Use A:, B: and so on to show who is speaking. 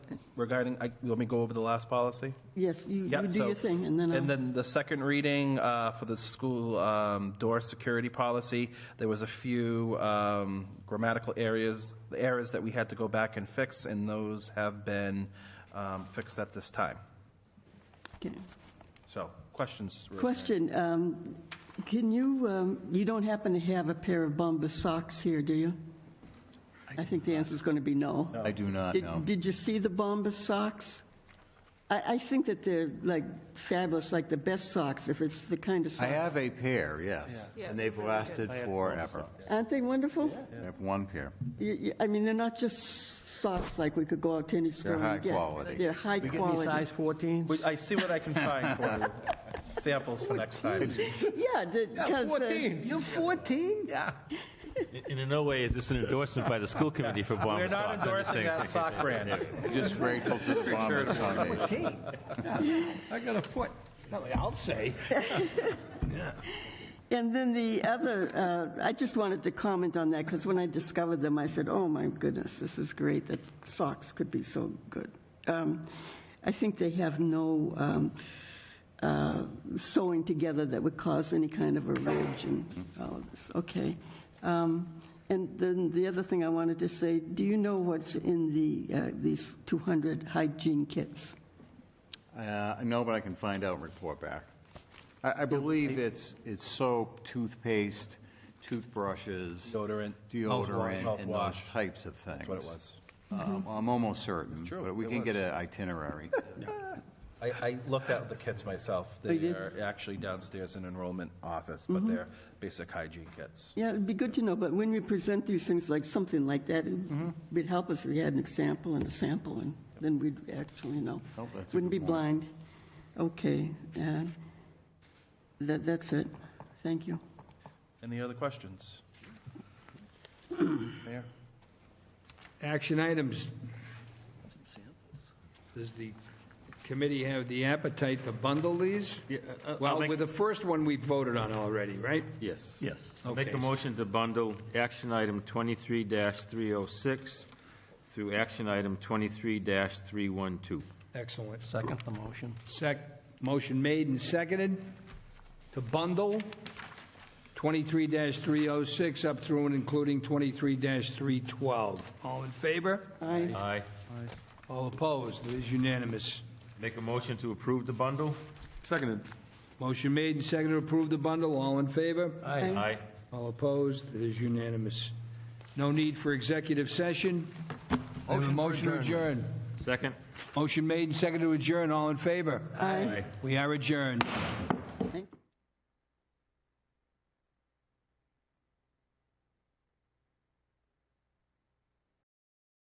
A: regarding, I- let me go over the last policy.
B: Yes, you
A: Yeah,
B: you do
A: so-
B: your thing, and then
A: And
B: I'll,
A: then the second reading uh, for the school um, door security policy, there was a few um, grammatical areas, errors that we had to go back and fix, and those have been um, fixed at this time.
B: okay.
A: So, questions? Ruth?
B: Question, um, can you, um, you don't happen to have a pair of Bombas socks here, do you? I think the answer's going to be no.
C: I do not
B: Did-
C: know.
B: Did you see the Bombas socks? I, I think that they're like fabulous, like the best socks, if it's the kind of
C: I
B: socks.
C: have a pair, yes, and they've lasted forever.
B: Aren't they wonderful?
C: I have one pair.
B: You- you- I mean, they're not just socks like we could go out to any store
C: high
B: and get.
C: quality.
B: They're high
D: We get any
B: quality.
D: size 14s?
A: I see what I can find for you. Samples for next time.
B: Yeah, because, uh,
D: You're 14? Yeah.
E: In in no way is this an endorsement by the school committee for Bomber
A: We're
E: socks.
A: not
E: I'm just
A: endorsing
E: saying
A: that
E: thank you.
A: sock brand.
C: I'm just grateful to the Bombers Foundation.
D: I got a foot. No, I'll say.
B: and then the other, uh, I just wanted to comment on that, because when I discovered them, I said, oh my goodness, this is great that socks could be so good. Um, I think they have no um, uh, sewing together that would cause any kind of a ridge and all of this, okay. Um, And then the other thing I wanted to say, do you know what's in the, uh, these 200 hygiene kits?
C: Uh, No, but I can find out and report back. I, I believe it's, it's soap, toothpaste, toothbrushes.
A: Deodorant.
C: Deodorant, and those
A: Mouthwash.
C: types of things.
A: That's what it was.
C: Um, I'm almost certain, but we
A: it
C: can get
A: was.
C: an itinerary.
A: I, I looked at the kits myself. They
B: Oh, did? Mm-hmm.
A: are actually downstairs in enrollment office, but they're basic hygiene kits.
B: Yeah, it'd be good to know, but when we present these things, like something like that, it
C: Mm-hmm.
B: would help us if we had an example and a sample, and then we'd actually know.
C: Oh, that's a
B: Wouldn't be
C: good
B: blind. Okay, uh, that, that's it. Thank you.
A: Any other questions? Mayor?
F: Action items. Does the committee have the appetite to bundle these? Well,
E: uh, make-
F: with the first one, we voted on already, right?
E: Yes.
D: Yes.
E: I'll Make
F: Okay.
E: a motion to bundle action item 23-306 through action item 23-312.
F: Excellent.
D: Second the motion.
F: Sec, motion made and seconded to bundle 23-306 up through and including 23-312. All in favor?
B: Aye.
E: Aye.
F: All opposed? It is unanimous.
E: Make a motion to approve the bundle?
A: Seconded.
F: Motion made and seconded to approve the bundle. All in favor?
D: Aye.
E: Aye.
F: All opposed? It is unanimous. No need for executive session. I have a Motion to adjourn.
E: Second?
F: Motion made and seconded to adjourn. All in favor?
B: Aye.
F: We are adjourned.